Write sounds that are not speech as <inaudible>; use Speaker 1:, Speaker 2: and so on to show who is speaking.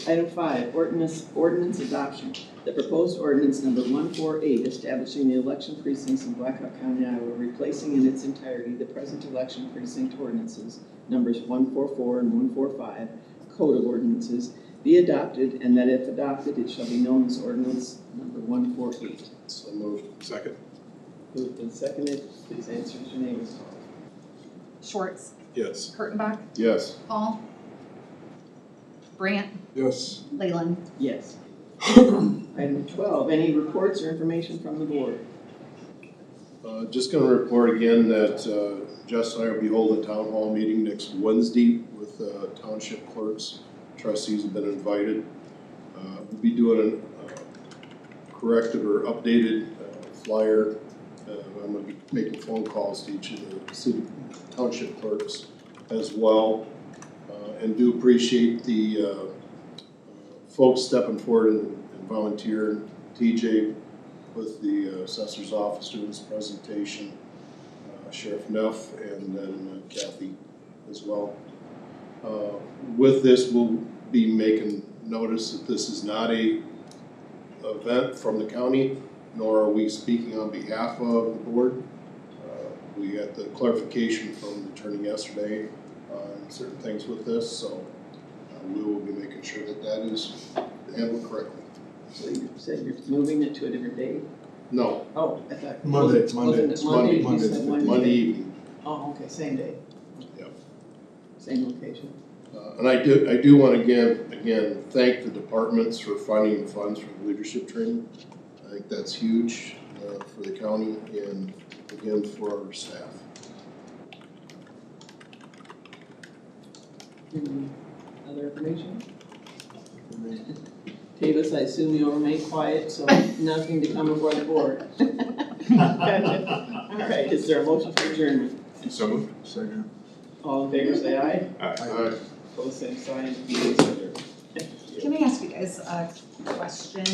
Speaker 1: Item five, ordinance, ordinance adoption. The proposed ordinance number one four eight establishing the election precincts in Blackhawk County, Iowa, replacing in its entirety the present election precinct ordinances, numbers one four four and one four five, code of ordinances, be adopted, and that if adopted, it shall be known as ordinance number one four eight.
Speaker 2: So moved. Second?
Speaker 1: Moved and seconded, please answer as your name is called.
Speaker 3: Schwartz,
Speaker 2: Yes.
Speaker 3: Kurttenbach,
Speaker 2: Yes.
Speaker 3: Paul, Brant,
Speaker 2: Yes.
Speaker 3: Leyland.
Speaker 1: Yes. Item twelve, any reports or information from the board?
Speaker 2: Uh, just gonna report again that, uh, Jess and I will be holding a town hall meeting next Wednesday with, uh, township clerks. Trustees have been invited. Uh, we'll be doing a corrected or updated uh, flyer. Uh, I'm gonna be making phone calls to each of the city township clerks as well. Uh, and do appreciate the, uh, folks stepping forward and and volunteering. TJ, with the assessor's office doing this presentation, uh, Sheriff Neff, and then uh, Kathy as well. Uh, With this, we'll be making notice that this is not a event from the county, nor are we speaking on behalf of the board. Uh, We got the clarification from the attorney yesterday on certain things with this, so uh, we will be making sure that that is handled correctly.
Speaker 1: So you said you're moving it to a different day?
Speaker 2: No,
Speaker 1: Oh, I thought.
Speaker 4: Monday, it's
Speaker 1: wasn't-
Speaker 4: Monday,
Speaker 1: Wasn't
Speaker 4: it's
Speaker 1: it
Speaker 4: Monday,
Speaker 1: Monday, you said
Speaker 4: Monday.
Speaker 1: Monday?
Speaker 2: Monday evening.
Speaker 1: Oh, okay, same day.
Speaker 2: Yep.
Speaker 1: Same location.
Speaker 2: Uh, And I do, I do want to again, again, thank the departments for finding the funds for the leadership training. I think that's huge uh, for the county and again for our staff.
Speaker 1: Any other information? Davis, I assume you'll remain quiet, so <laughs> nothing to come before the board. All right, is there a motion for adjournment?
Speaker 5: So moved.
Speaker 4: Second.
Speaker 1: All in favor, say aye.
Speaker 2: All right.
Speaker 1: Opposed, same sign. Meeting is adjourned. Thank you.
Speaker 3: Can I ask you guys a question?